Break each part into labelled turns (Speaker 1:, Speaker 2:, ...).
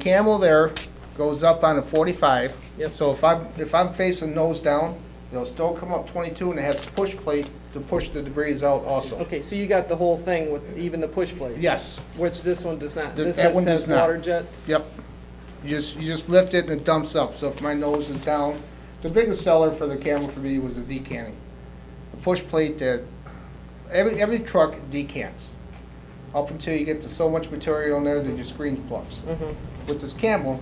Speaker 1: camel there goes up on a forty-five.
Speaker 2: Yep.
Speaker 1: So if I'm, if I'm facing nose down, they'll still come up twenty-two and they have to push plate to push the debris out also.
Speaker 2: Okay, so you got the whole thing with even the push plate?
Speaker 1: Yes,
Speaker 2: Which this one does not.
Speaker 1: Th-
Speaker 2: This
Speaker 1: that
Speaker 2: has
Speaker 1: one
Speaker 2: says
Speaker 1: does not.
Speaker 2: water jets.
Speaker 1: yep. You just, you just lift it and it dumps up, so if my nose is down, the biggest seller for the camel for me was the decanting. The push plate that, every, every truck decants. Up until you get to so much material in there that your screen plucks.
Speaker 2: Mhm.
Speaker 1: With this camel,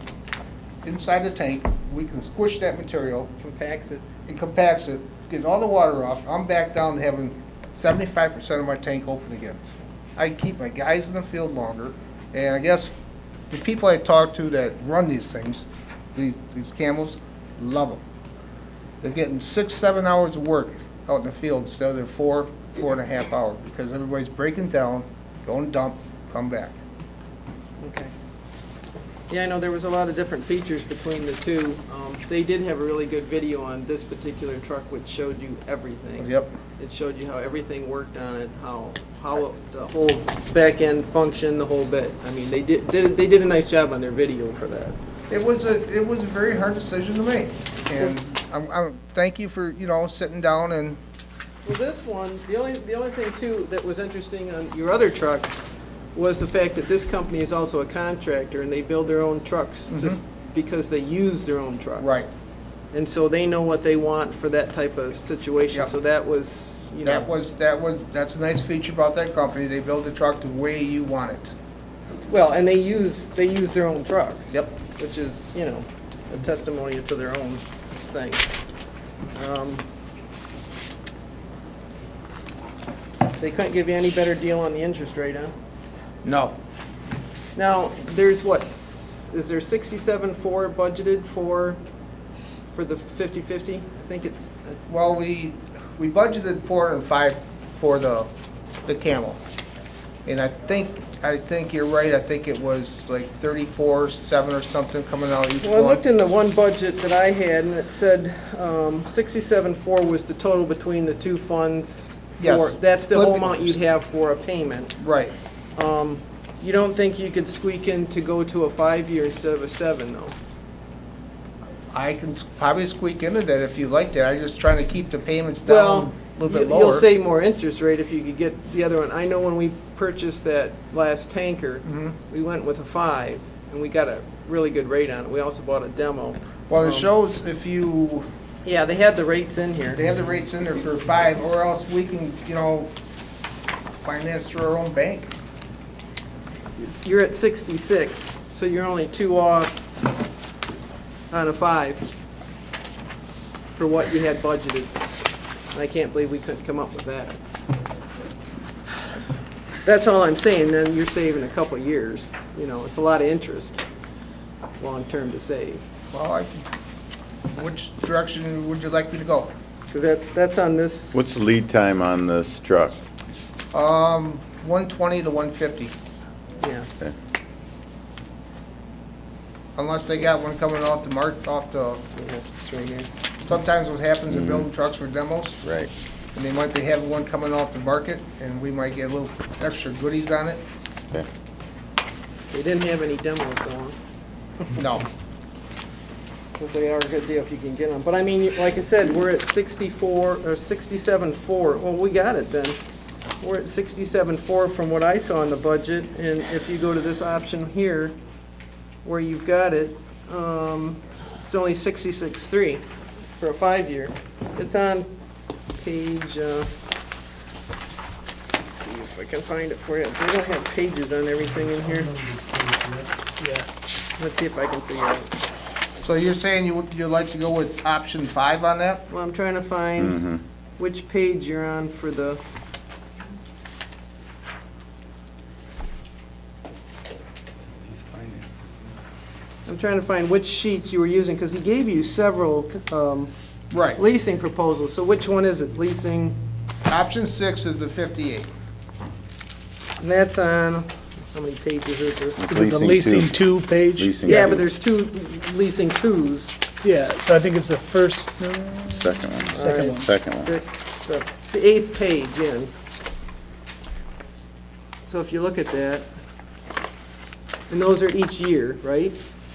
Speaker 1: inside the tank, we can squish that material,
Speaker 2: Compacts it.
Speaker 1: it compacts it, gets all the water off, I'm back down to having seventy-five percent of my tank open again. I keep my guys in the field longer, and I guess the people I talk to that run these things, these, these camels, love them. They're getting six, seven hours of work out in the field instead of their four, four and a half hour, because everybody's breaking down, going dump, come back.
Speaker 2: Okay. Yeah, I know there was a lot of different features between the two. Um, They did have a really good video on this particular truck which showed you everything.
Speaker 1: Yep,
Speaker 2: It showed you how everything worked on it, how, how it- the whole back end functioned, the whole bit. I mean, they did, did- they did a nice job on their video for that.
Speaker 1: it was a, it was a very hard decision to make, and I'm, I'm, thank you for, you know, sitting down and
Speaker 2: Well, this one, the only, the only thing too that was interesting on your other truck was the fact that this company is also a contractor and they build their own trucks just because they use their own trucks.
Speaker 1: Mm-hmm. Right.
Speaker 2: And so they know what they want for that type of situation.
Speaker 1: Yep.
Speaker 2: So that was, you know.
Speaker 1: That was, that was, that's a nice feature about that company. They build the truck the way you want it.
Speaker 2: Well, and they use, they use their own trucks.
Speaker 1: Yep.
Speaker 2: Which is, you know, a testimony to their own thing. Um, They couldn't give you any better deal on the interest rate, huh?
Speaker 1: No.
Speaker 2: Now, there's what, s- is there sixty-seven four budgeted for, for the fifty-fifty? I think it,
Speaker 1: Well, we, we budgeted four hundred and five for the, the Camel. And I think, I think you're right. I think it was like thirty-four, seven or something coming out each
Speaker 2: well, I looked
Speaker 1: one.
Speaker 2: in the one budget that I had and it said, um, sixty-seven four was the total between the two funds. for-
Speaker 1: Yes.
Speaker 2: That's the whole
Speaker 1: Split-
Speaker 2: amount you'd have for a payment.
Speaker 1: Right.
Speaker 2: Um, you don't think you could squeak in to go to a five-year instead of a seven, though?
Speaker 1: I can probably squeak into that if you like that. I'm just trying to keep the payments
Speaker 2: Well,
Speaker 1: down a little
Speaker 2: you-
Speaker 1: bit lower.
Speaker 2: You'll save more interest rate if you could get the other one. I know when we purchased that last tanker,
Speaker 1: Mm-hmm.
Speaker 2: we went with a five, and we got a really good rate on it. We also bought a demo.
Speaker 1: Well, it
Speaker 2: Um,
Speaker 1: shows if you,
Speaker 2: Yeah, they had the rates in here.
Speaker 1: They have the rates in there for five, or else we can, you know, finance through our own bank.
Speaker 2: You're at sixty-six, so you're only two off on a five for what you had budgeted. And I can't believe we couldn't come up with that. That's all I'm saying, then you're saving a couple of years, you know, it's a lot of interest, long-term to save.
Speaker 1: Well, I, which direction would you like me to go?
Speaker 2: Because that's, that's on this,
Speaker 3: What's the lead time on this truck?
Speaker 1: Um, one twenty to one fifty,
Speaker 2: yeah.
Speaker 1: unless they got one coming off the mark, off the,
Speaker 2: yeah, it's right here.
Speaker 1: sometimes what happens in building trucks for demos,
Speaker 3: Right.
Speaker 1: and they might be having one coming off the market, and we might get a little extra goodies on it.
Speaker 3: Okay.
Speaker 2: They didn't have any demos going.
Speaker 1: No,
Speaker 2: Because they are a good deal if you can get them. But I mean, like I said, we're at 64, or 67.4. Well, we got it then. We're at 67.4 from what I saw in the budget. And if you go to this option here, where you've got it, um, it's only 66.3 for a five-year. It's on page, uh, let's see if I can find it for you. They don't have pages on everything in here. Yeah. Let's see if I can figure out.
Speaker 1: so you're saying you, would- you'd like to go with option five on that?
Speaker 2: Well, I'm trying to find which page you're on for the. I'm trying to find which sheets you were using, because he gave you several um,
Speaker 1: Right,
Speaker 2: leasing proposals, so which one is it? Leasing,
Speaker 1: option six is the fifty-eight.
Speaker 2: and that's on, how many pages is this?
Speaker 3: It's
Speaker 4: Is it the leasing two page?
Speaker 3: Leasing
Speaker 2: Yeah,
Speaker 3: two.
Speaker 2: but there's two leasing twos,
Speaker 4: Yeah, so I think it's the first,
Speaker 3: Second one.
Speaker 4: Second one.
Speaker 3: Second one.
Speaker 2: six, seven, it's the eighth page in. So if you look at that, And those are each year, right?